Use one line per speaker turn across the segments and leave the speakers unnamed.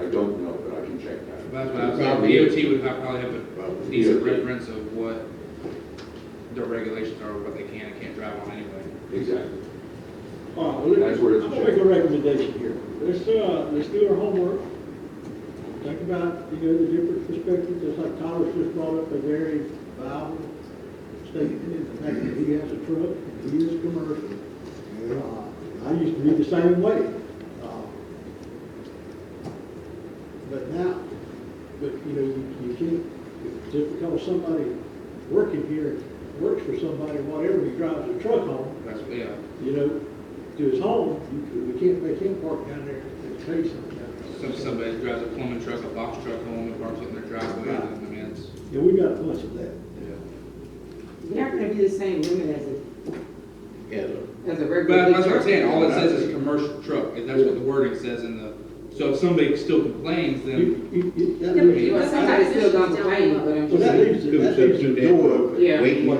I don't know, but I can check that.
That's what I was saying, DOT would have, probably have a decent reference of what their regulations are, what they can and can't drive on anyway.
Exactly.
All right, well,
That's where it's
I'm gonna make a recommendation here. Let's, uh, let's do our homework. Think about, you know, the different perspectives, just like Thomas just brought up a very valid statement, in the fact that he has a truck, and he is commercial. Uh, I used to be the same way. Uh, But now, but, you know, you you can't, just because somebody working here, works for somebody, whatever, he drives a truck home,
That's, yeah,
you know, to his home, you- we can't make him park down there and pay something.
some, somebody drives a plumbing truck, a box truck home and parks it in their driveway, and I mean, it's,
Yeah, we got a bunch of that.
You're not gonna be the same limit as a,
Yeah,
as a regular.
But that's what I'm saying, all it says is commercial truck, and that's what the wording says in the, so if somebody still complains, then
You- you- you- that
Yeah,
leaves-
Well, somebody still gonna complain, but I'm
Well,
just
that
saying.
leaves, that leaves the door open.
Yeah.
Wait,
What-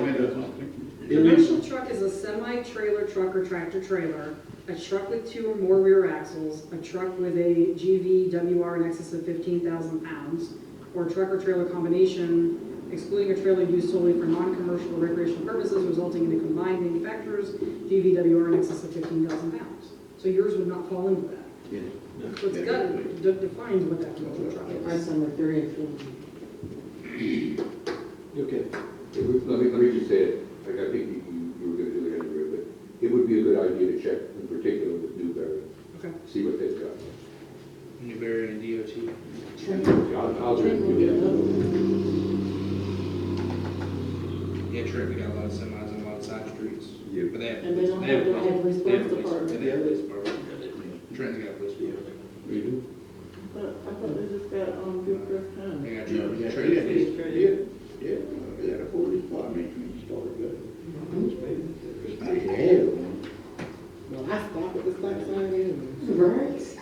It leaves,
Commercial truck is a semi-trailer truck or tractor-trailer, a truck with two or more rear axles, a truck with a GVWR in excess of 15,000 pounds, or truck or trailer combination, excluding a trailer used solely for non-commercial or recreational purposes resulting in a combined manufacturer's GVWR in excess of 15,000 pounds. So yours would not fall into that.
yeah.
So it's got, de- defines what that commercial truck
It
is.
runs number three and four.
okay,
It would, let me, let me just say it, like, I think you, you- you were gonna do it anyway, but it would be a good idea to check in particular with Newberry,
Okay.
see what they've got.
Newberry and DOT.
I'll, I'll just do that.
Yeah, true, we got a lot of semis and a lot of side streets.
Yeah.
But they have.
And they don't have- they have police
they have
department.
They have police department. Trenton's got a police department.
We do?
But I thought they just got, um, Gilchrist County.
They got
Yeah,
Trenton,
yeah,
Trenton police.
yeah, yeah, yeah, we had a police department when you started, but. I had one. Well, I stopped at the stop sign anyway.
Right.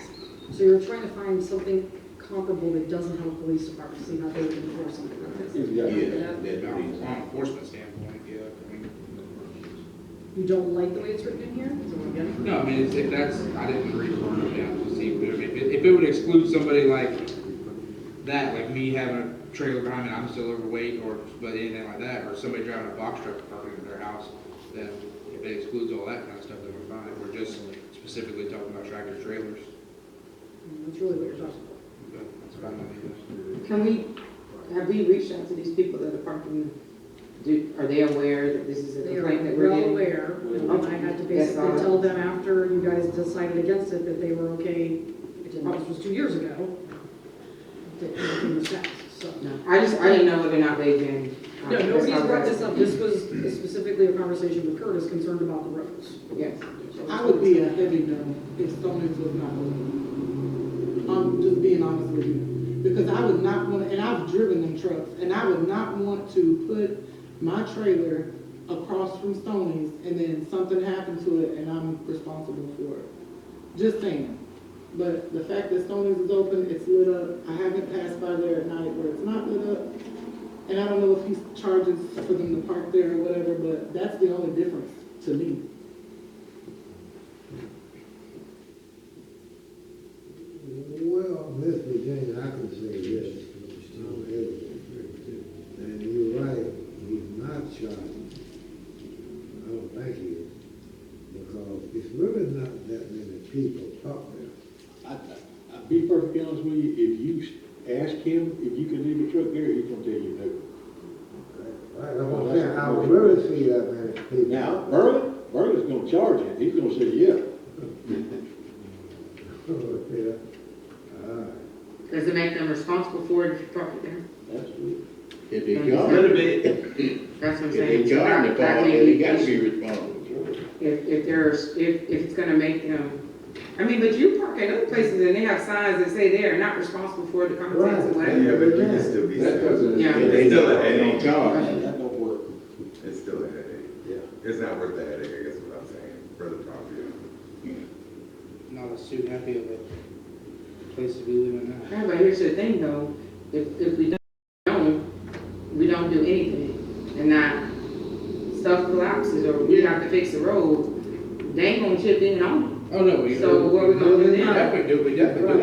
So you're trying to find something comparable that doesn't have a police department, so you're not able to enforce something like this.
Yeah,
Yeah.
that's the
From a
reason.
law enforcement standpoint, yeah, I mean.
You don't like the way it's written in here? Is that what I'm getting?
No, I mean, it's- if that's, I didn't read it word down to see, but I mean, if it, if it would exclude somebody like that, like me having a trailer behind me, and I'm still overweight, or, but anything like that, or somebody driving a box truck parking in their house, then if it excludes all that kind of stuff, then we're fine, we're just specifically talking about tractor trailers.
Mm, That's really what you're talking about.
But That's about it.
Can we, have we reached out to these people that are parking, do, are they aware that this is a
They are
complaint that we're
well
getting?
aware, and I had
That's
to
all
basically
right.
tell them after you guys decided against it that they were okay, this was two years ago, that everything was passed, so.
No, I just, I didn't know whether or not they've been. um,
No, nobody's
that's all
brought
right.
this up, this was specifically a conversation with Curtis concerned about the roads.
Yes.
So
I would be a heavy no if Stonings was not open. I'm just being honest with you, because I would not want, and I've driven them trucks, and I would not want to put my trailer across from Stonings and then something happened to it and I'm responsible for it. Just saying. But the fact that Stonings is open, it's lit up, I haven't passed by there at night where it's not lit up. And I don't know if he's charges for them to park there or whatever, but that's the only difference to me.
Well, Miss Virginia, I can say this, Tom Edwards, and you're right, he's not charged. I don't think he is, because it's really not that many people up there.
I, I, I'll be perfectly honest with you, if you s- ask him if you can leave a truck there, he's gonna tell you no.
Right, I'm gonna say, I don't really see that many people.
Now, Merlin, Merlin's gonna charge it, he's gonna say, yeah.
Yeah. Uh, All right.
Does it make them responsible for it if you park it there?
That's it. If they
That's
charge.
it.
it,
That's what I'm
If
saying.
they charge the
That- that
car,
may
then
be
he gotta
issue.
be responsible.
If, if there's, if, if it's gonna make them, I mean, but you park at other places and they have signs that say they are not responsible for the contents
Right.
or whatever.
Yeah, but you can still be
That
sad.
doesn't.
Yeah.
If they
Still a
don't- they don't
headache.
charge, it, that don't work.
It's still a headache.
Yeah.
It's not worth the headache, I guess is what I'm saying, for the property owner.
Not as too happy of a place to be living now.
Yeah, but here's the thing though, if, if we don't, we don't do anything and not stuff collapses or we have to fix the road, they ain't gonna chip in on
Oh, no, we.
So what we gonna do then?
Definitely do, we definitely doing